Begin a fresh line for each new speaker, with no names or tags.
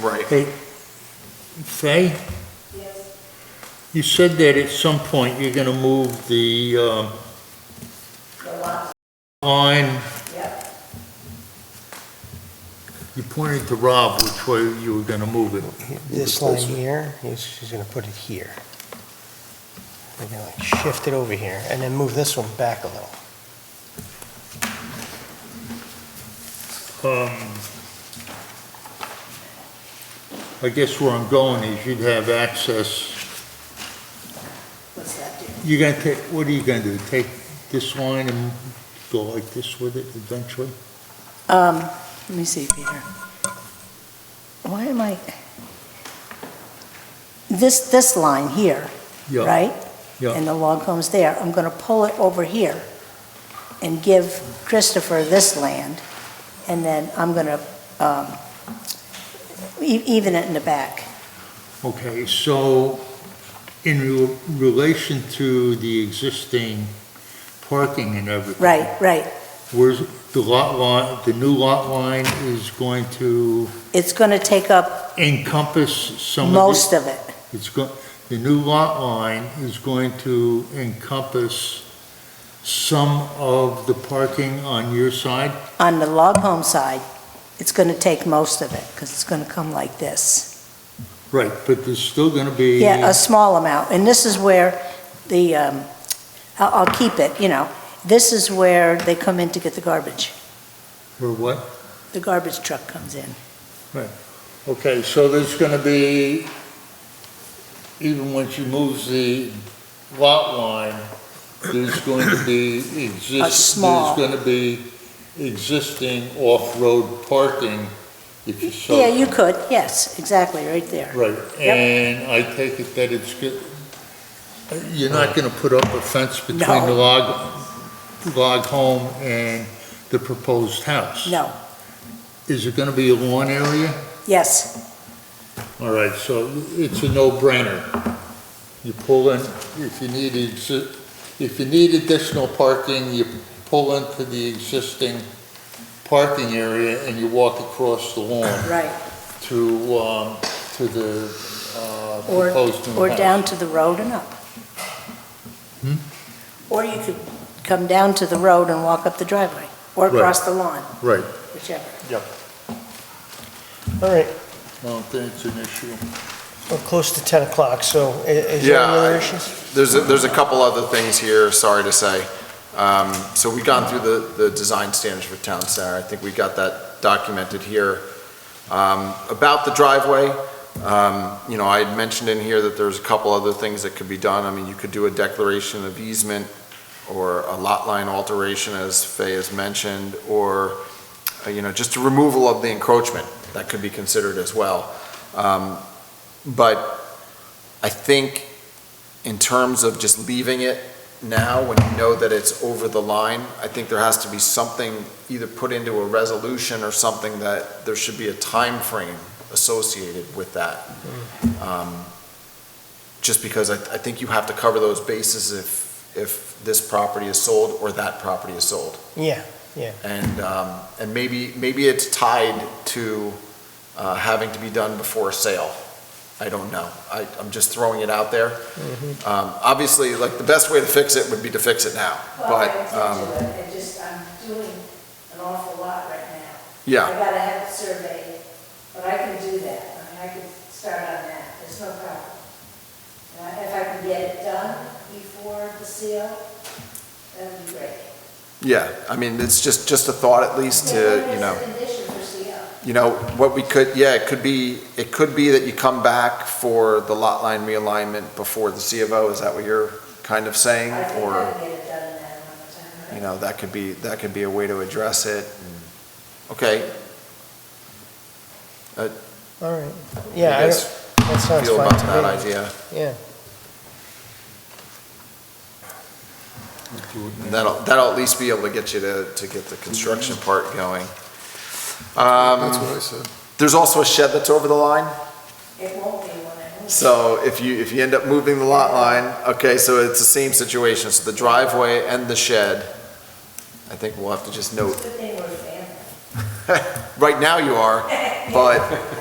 Right.
Hey, Fay,
Yes,
you said that at some point you're gonna move the, um,
the lot,
line,
yep,
you pointed to Rob which way you were gonna move it.
This line here, he's- she's going to put it here. We're going to like shift it over here and then move this one back a little.
Um, I guess where I'm going is you'd have access,
what's that do?
you're gonna take, what are you gonna do? Take this line and go like this with it eventually?
Um, let me see, Peter. Why am I? This, this line here,
Yeah,
right?
yeah.
And the log home's there. I'm gonna pull it over here and give Christopher this land, and then I'm gonna, um, e- even it in the back.
Okay, so in re- relation to the existing parking and everything.
Right, right.
Where's the lot line, the new lot line is going to
It's gonna take up
encompass some of the...
most of it.
It's go, the new lot line is going to encompass some of the parking on your side?
On the log home side, it's gonna take most of it, because it's gonna come like this.
Right, but there's still going to be...
Yeah, a small amount, and this is where the, um, I'll, I'll keep it, you know, this is where they come in to get the garbage,
Or what?
the garbage truck comes in.
Okay, so there's going to be, even once you move the lot line, there's going to be exist...
A small-
There's going to be existing off-road parking if you so...
Yeah, you could, yes, exactly, right there.
Right,
Yep.
and I take it that it's good, you're not gonna put up a fence between the
No.
log, log home and the proposed house?
No,
Is it gonna be a lawn area?
yes,
All right, so it's a no-brainer. You pull in, if you need, exi- if you need additional parking, you pull into the existing parking area and you walk across the lawn
right,
to, um, to the, uh,
or,
proposed new house.
or down to the road and up.
Hmm?
Or you could come down to the road and walk up the driveway, or
Right.
across the lawn,
Right.
whichever.
All right,
I don't think it's an issue.
we're close to 10 o'clock, so i- is there
Yeah,
any other
I-
issues?
There's, a- there's a couple other things here, sorry to say. Um, So we've gone through the, the design standards for Town Center. I think we got that documented here. Um, About the driveway, um, you know, I had mentioned in here that there's a couple other things that could be done. I mean, you could do a declaration of easement or a lot line alteration, as Fay has mentioned, or, uh, you know, just a removal of the encroachment. That could be considered as well. Um, But I think in terms of just leaving it now, when you know that it's over the line, I think there has to be something either put into a resolution or something that there should be a time frame associated with that. Um, Just because I, I think you have to cover those bases if, if this property is sold or that property is sold.
Yeah,
And, um, and maybe, maybe it's tied to, uh, having to be done before a sale. I don't know. I, I'm just throwing it out there. Um, obviously, like, the best way to fix it would be to fix it now, but, um,
Well, I did do it, I just, I'm doing an awful lot right now. I
yeah,
gotta have it surveyed, but I can do that, I mean, I can start on that, there's no problem. And I- if I can get it done before the seal, that would be great.
yeah. I mean, it's just, just a thought at least to, you know.
What is the condition for seal?
you know, what we could, yeah, it could be, it could be that you come back for the lot line realignment before the C of O, is that what you're kind of saying?
I think I
Or,
can get it done in that amount of time, right?
you know, that could be, that could be a way to address it. Okay,
all right.
you
Yeah, I
guys
don't- that sounds
feel
fine
about
to
that
me.
idea?
Yeah.
And That'll, that'll at least be able to get you to, to get the construction part going. Um,
what I said.
there's also a shed that's over the line,
It won't be when I move.
so if you, if you end up moving the lot line, okay, so it's the same situation, so the driveway and the shed, I think we'll have to just note
It's a good thing we're family.
Right now you are, but